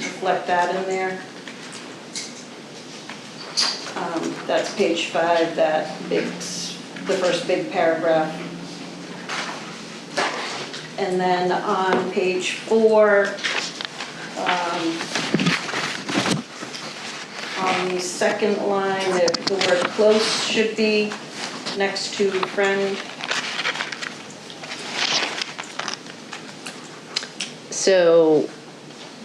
reflect that in there. Um, That's page five, that big, s- the first big paragraph. And then on page four, um, on the second line, the the word close should be next to friend. So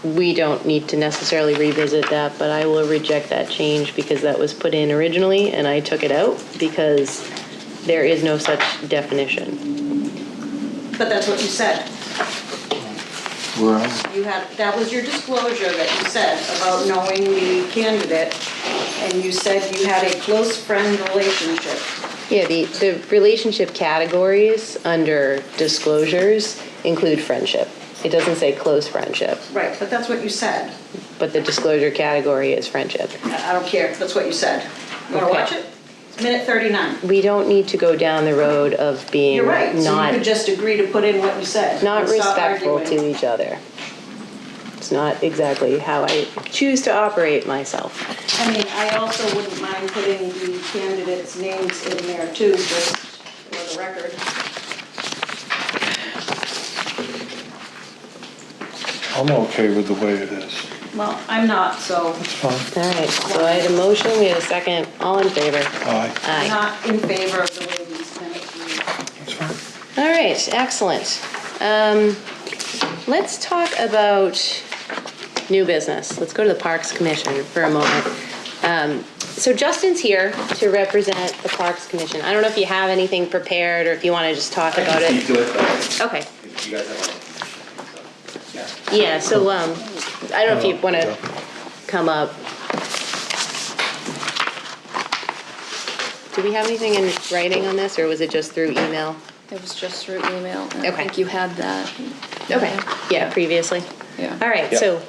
we don't need to necessarily revisit that, but I will reject that change because that was put in originally and I took it out because there is no such definition. But that's what you said. Where am You had, that was your disclosure that you said about knowing the candidate, and you said you had a close friend relationship. Yeah, the, the relationship categories under disclosures include friendship. It doesn't say close friendship, Right, but that's what you said. but the disclosure category is friendship. I I don't care, that's what you said. You wanna Okay. watch it? It's Minute 39. We don't need to go down the road of being You're right, so you not could just agree to put in what you said. not and stop respectful to arguing. each other. It's not exactly how I choose to operate myself. I mean, I also wouldn't mind putting the candidates' names in there too, just for the record. I'm okay with the way it is. Well, I'm not, so It's fine. All right, so I had a motion, we had a second, all in favor? Aye, I'm Aye. not in favor of the way these minutes read. it's fine. All right, excellent. Um, Let's talk about new business. Let's go to the Parks Commission for a moment. Um, So Justin's here to represent the Parks Commission. I don't know if you have anything prepared or if you want to just talk I can about speak it. to it, but Okay. if you guys have. Yeah. Yeah, so, um, I don't know if you wanna come up. Do we have anything in writing on this, or was it just through email? It was just through email, and I Okay. think you had that. Okay, yeah, previously. Yeah. All right, Yep. so,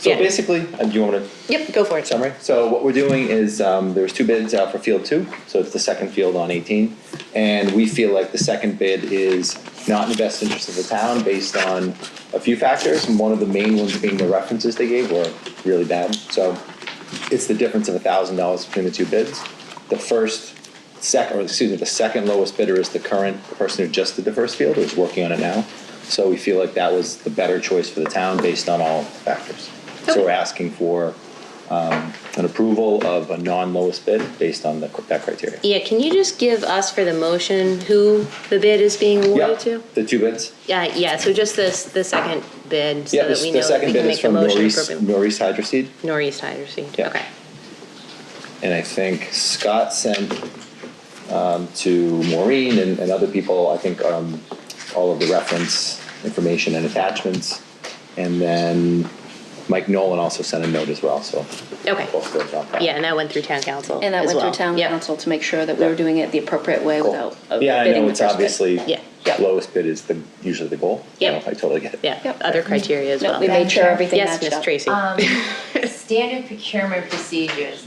So Yeah. basically, uh, do you want to yep, go for it. summary? So what we're doing is, um, there's two bids out for field two, so it's the second field on eighteen. And we feel like the second bid is not in the best interest of the town based on a few factors. And one of the main ones being the references they gave were really bad. So it's the difference of a thousand dollars between the two bids. The first, second, or excuse me, the second lowest bidder is the current person who just did the first field, who's working on it now. So we feel like that was the better choice for the town based on all factors. So we're asking for an approval of a non-lowest bid based on the, that criteria. Yeah, can you just give us for the motion who the bid is being awarded to? Yep, The two bids. Yeah, yeah, so just this, the second bid, so Yeah, that this- we know the that we second can bid is make the from motion Northeast, appropriately. Northeast Hydroseed. Northeast Hydro Seed, Yeah. okay. And I think Scott sent um, to Maureen and, and other people, I think, um, all of the reference information and attachments. And then Mike Nolan also sent a note as well, so. Okay. Both those on file. Yeah, and that went through town council And that as went through well. town Yep. council to make sure that we were doing it the appropriate way Cool. without uh, Yeah, I bidding know, the it's first bid. obviously, Yeah, yeah. lowest bid is the, usually the goal. So Yep. I totally get it. Yeah, Yep. other criteria as No, well. we made sure everything Yes, matched Miss up. Tracy. Um, Standard procurement procedures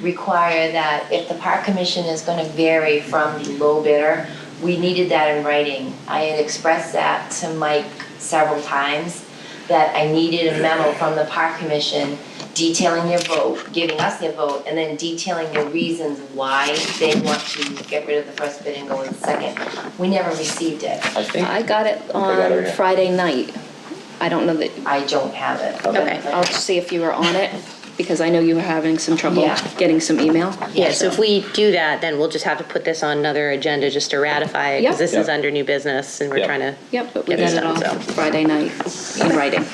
require that if the park commission is gonna vary from the low bidder, we needed that in writing. I had expressed that to Mike several times, that I needed a memo from the park commission detailing their vote, giving us their vote, and then detailing the reasons why they want to get rid of the first bid and go with the second. We never received it. I think. I got it I got it on here. Friday night. I don't know that, I don't have it. okay, I'll see if you were on it, because I know you were having some trouble Yeah. getting some email. Yeah, so if we do that, then we'll just have to put this on another agenda just to ratify it, because Yep. this is Yep. under new business, and we're Yep. trying to. Yep, but we Get got it it done, on so. Friday night in writing.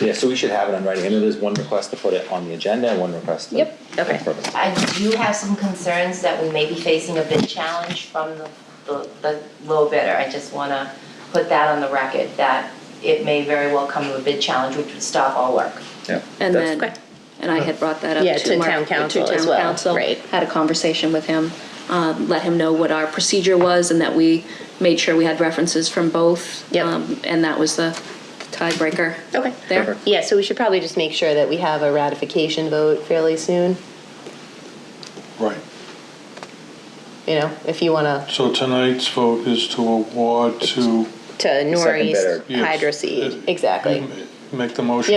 Yeah, so we should have it on writing. I know there's one request to put it on the agenda and one request to. Yep. Okay. Perfect. I do have some concerns that we may be facing a bid challenge from the, the, the low bidder. I just wanna put that on the record, that it may very well come to a bid challenge, which would stop all work. Yeah. And That's- okay. then, and I had brought that up Yeah, to to Mark. town council to as town well, council, right. Had a conversation with him, um, let him know what our procedure was and that we made sure we had references from both. Yep. um, And that was the tiebreaker Okay. there. Perfect. Yeah, so we should probably just make sure that we have a ratification vote fairly soon, Right. you know, if you wanna, So tonight's vote is to award to. to Northeast bidder. yes, Hydro Seed, uh, exactly. Make the motion